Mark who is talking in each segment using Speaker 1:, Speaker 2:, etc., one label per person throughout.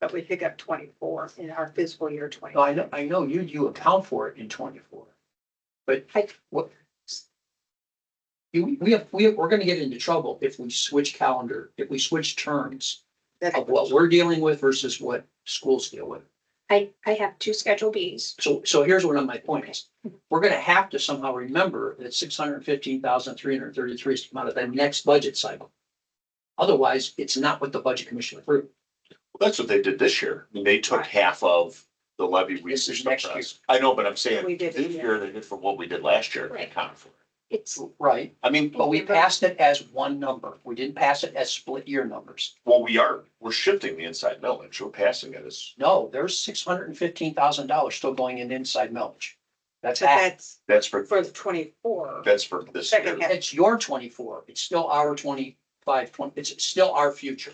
Speaker 1: but we pick up twenty-four in our fiscal year twenty.
Speaker 2: No,
Speaker 3: Oh,
Speaker 2: I know, I know you, you account for it in twenty-four. But
Speaker 1: I-
Speaker 2: what? You, we have, we, we're gonna get into trouble if we switch calendar, if we switch terms
Speaker 1: That's-
Speaker 3: oh,
Speaker 2: of what we're dealing with versus what schools deal with.
Speaker 1: I, I have two Schedule Bs.
Speaker 2: So, so here's one of my points. We're gonna have to somehow remember that six hundred fifteen thousand three hundred thirty-three is the amount of the next budget cycle. Otherwise, it's not what the budget commission approved.
Speaker 3: That's what they did this year. I mean, they took
Speaker 1: Right.
Speaker 3: half of the levy we
Speaker 2: This is
Speaker 3: subsidized.
Speaker 2: next year.
Speaker 3: I know, but I'm saying
Speaker 1: We did
Speaker 3: this
Speaker 1: it, yeah.
Speaker 3: year they did for what we did last year. They
Speaker 1: Right.
Speaker 3: accounted for it.
Speaker 1: It's,
Speaker 2: Right.
Speaker 3: I mean,
Speaker 2: But we passed it as one number. We didn't pass it as split year numbers.
Speaker 3: well, we are, we're shifting the inside millage. We're passing it as,
Speaker 2: No, there's six hundred and fifteen thousand dollars still going in inside millage.
Speaker 1: but
Speaker 2: That's half.
Speaker 1: that's
Speaker 3: that's for,
Speaker 1: for the twenty-four.
Speaker 3: that's for this
Speaker 1: Second
Speaker 3: year.
Speaker 1: half.
Speaker 2: It's your twenty-four. It's still our 25, 20 it's still our future.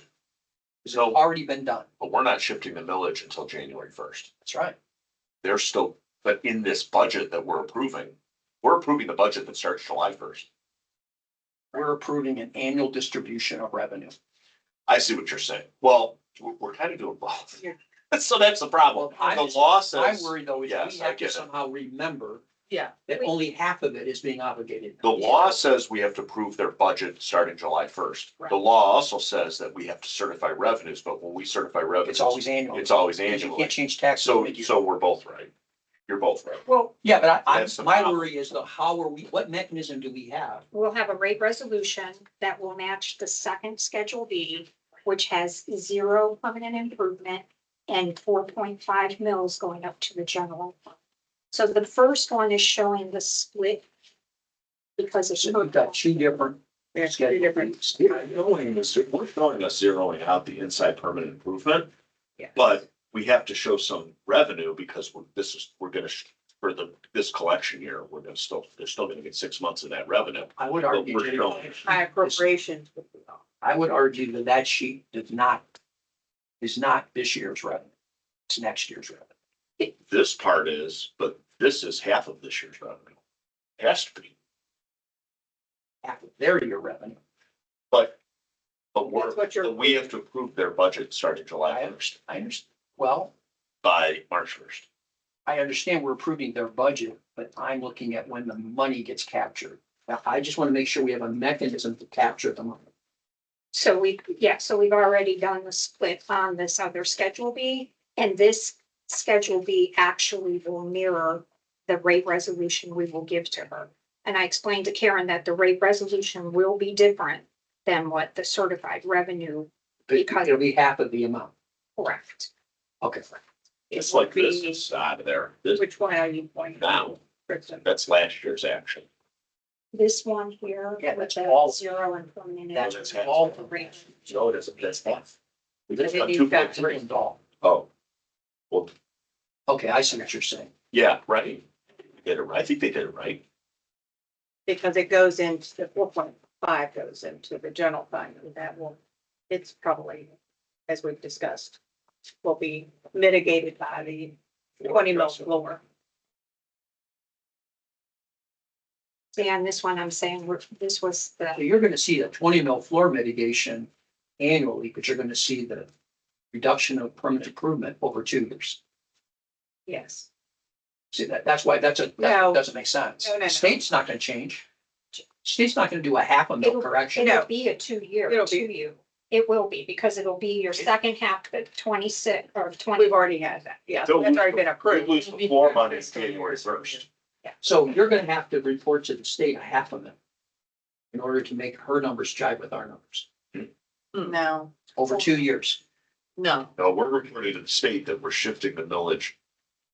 Speaker 2: It's
Speaker 3: So-
Speaker 2: already been done.
Speaker 3: But we're not shifting the millage until January first.
Speaker 2: That's right.
Speaker 3: They're still, but in this budget that we're approving, we're approving the budget that starts July first.
Speaker 2: We're approving an annual distribution of revenue.
Speaker 3: I see what you're saying. Well, we're, we're kind of doing both.
Speaker 1: Yeah.
Speaker 3: So that's the problem.
Speaker 2: Well, I
Speaker 3: The
Speaker 2: just-
Speaker 3: law
Speaker 2: I
Speaker 3: says,
Speaker 2: worry though, is we
Speaker 3: yes, I
Speaker 2: have
Speaker 3: get
Speaker 2: to
Speaker 3: it.
Speaker 2: somehow remember
Speaker 4: Yeah.
Speaker 2: that
Speaker 4: We-
Speaker 2: only half of it is being obligated.
Speaker 3: the law says we have to prove their budget starting July first.
Speaker 2: Right.
Speaker 3: The law also says that we have to certify revenues, but when we certify revenues,
Speaker 2: It's always annual.
Speaker 3: it's always
Speaker 2: Because You
Speaker 3: annual.
Speaker 2: can't change taxes.
Speaker 3: So,
Speaker 2: mid-year.
Speaker 3: so we're both right. You're both right.
Speaker 2: Well, yeah, but I,
Speaker 3: That's
Speaker 2: I,
Speaker 3: the
Speaker 2: my
Speaker 3: problem.
Speaker 2: worry is the, how are we, what mechanism do we have?
Speaker 4: We'll have a rate resolution that will match the second Schedule B, which has zero permanent improvement and four point five mils going up to the general. fund. So the first one is showing the split because it's.
Speaker 2: So we've got two different
Speaker 1: There's two different,
Speaker 3: Yeah, knowing this, we're throwing us zeroing out the inside permanent improvement.
Speaker 1: Yeah.
Speaker 3: But we have to show some revenue because we're, this is, we're gonna, sh- for the, this collection year, we're gonna still, they're still gonna get six months of that revenue.
Speaker 2: I would
Speaker 3: But
Speaker 2: argue,
Speaker 3: we're still-
Speaker 2: Jenny,
Speaker 1: high appropriations would be off.
Speaker 2: I would argue that that sheet does not, is not this year's revenue. It's next year's revenue.
Speaker 3: This part is, but this is half of this year's revenue. Has to be,
Speaker 2: Half of their year revenue.
Speaker 3: but, but we're,
Speaker 1: That's what you're-
Speaker 3: but we have to approve their budget starting
Speaker 2: I
Speaker 3: July first
Speaker 2: understand, I understand. Well,
Speaker 3: by March first.
Speaker 2: I understand we're approving their budget, but I'm looking at when the money gets captured. Now, I just want to make sure we have a mechanism to capture the money.
Speaker 4: So we, yeah, so we've already done the split on this other Schedule B, and this Schedule B actually will mirror the rate resolution we will give to her. And I explained to Karen that the rate resolution will be different than what the certified revenue,
Speaker 2: Because it'll be half of the amount.
Speaker 4: correct?
Speaker 2: Okay.
Speaker 3: It's
Speaker 1: It would
Speaker 3: like this
Speaker 1: be-
Speaker 3: is out of there. This,
Speaker 1: Which one are you pointing?
Speaker 3: now,
Speaker 1: Kristen?
Speaker 3: that's last year's action.
Speaker 4: This one here
Speaker 2: Yeah,
Speaker 4: with
Speaker 2: that's all-
Speaker 4: the zero and permanent.
Speaker 2: That's
Speaker 3: that's half.
Speaker 2: all. of it.
Speaker 4: rate.
Speaker 3: No, it isn't. That's half. We just got
Speaker 1: Maybe
Speaker 3: two
Speaker 1: you've got
Speaker 3: point
Speaker 2: It's written
Speaker 3: three.
Speaker 2: all.
Speaker 3: Oh,
Speaker 2: Okay, I see what you're saying.
Speaker 3: yeah, right. They Did it right. I think they did it right.
Speaker 1: Because it goes into, the four point five goes into the general fund, and that will, it's probably, as we've discussed, will be mitigated by the twenty mil floor.
Speaker 4: See, on this one, I'm saying we're- this was the
Speaker 2: So you're gonna see a twenty mil floor mitigation annually, but you're gonna see the reduction of permanent improvement over two years.
Speaker 1: Yes.
Speaker 2: See, that, that's why, that's a, that
Speaker 1: No.
Speaker 2: doesn't make sense.
Speaker 1: No, no, no.
Speaker 2: State's not gonna change. State's not gonna do a half a mil
Speaker 4: It'll-
Speaker 2: correction.
Speaker 1: No.
Speaker 4: It'll be a two-year,
Speaker 1: It'll be-
Speaker 4: two-year. It will be, because it'll be your second half of twenty-six or twenty.
Speaker 1: We've already had that. Yeah, that's
Speaker 3: So we-
Speaker 1: already been
Speaker 3: We
Speaker 1: approved.
Speaker 3: lose the floor money January first.
Speaker 2: So you're gonna have to report to the state a half a mil in order to make her numbers jive with our numbers
Speaker 1: No,
Speaker 2: over two years.
Speaker 1: no.
Speaker 3: No, we're reporting to the state that we're shifting the millage.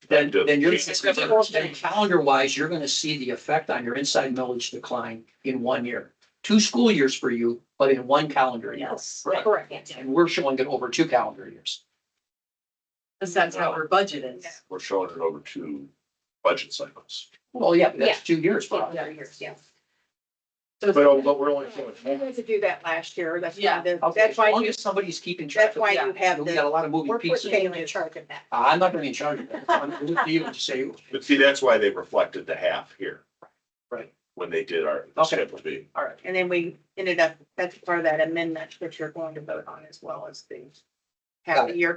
Speaker 2: Then,
Speaker 3: to
Speaker 2: then you're,
Speaker 3: January
Speaker 2: calendar wise, you're gonna see the effect on your inside millage decline in one year. Two school years for you, but in one calendar year.
Speaker 5: Yes,
Speaker 3: Right.
Speaker 4: Correct.
Speaker 2: And we're showing it over two calendar years.
Speaker 5: because that's how our budget is.
Speaker 3: We're showing it over two budget cycles.
Speaker 2: Well, yeah, but that's two years. for us.
Speaker 4: Yeah.
Speaker 3: But, but we're only showing
Speaker 1: We had to do that last year. That's why,
Speaker 5: Yeah.
Speaker 1: the-
Speaker 2: Okay,
Speaker 1: that's
Speaker 2: As
Speaker 1: why,
Speaker 2: long
Speaker 1: you-
Speaker 2: as somebody's keeping track
Speaker 1: that's
Speaker 2: of it.
Speaker 1: why you have
Speaker 2: We got a
Speaker 1: the,
Speaker 2: lot of moving
Speaker 1: we're
Speaker 2: pieces.
Speaker 1: putting
Speaker 4: Taylor in charge of that.
Speaker 2: I'm not gonna be in charge of that. I'm gonna leave you to say,
Speaker 3: But see, that's why they reflected the half here.
Speaker 2: Right.
Speaker 3: When they did our, the
Speaker 2: Okay.
Speaker 3: schedule B.
Speaker 2: all right,
Speaker 1: and then we ended up, that's part of that amendment that you're going to vote on as well as the half
Speaker 2: Got
Speaker 1: a year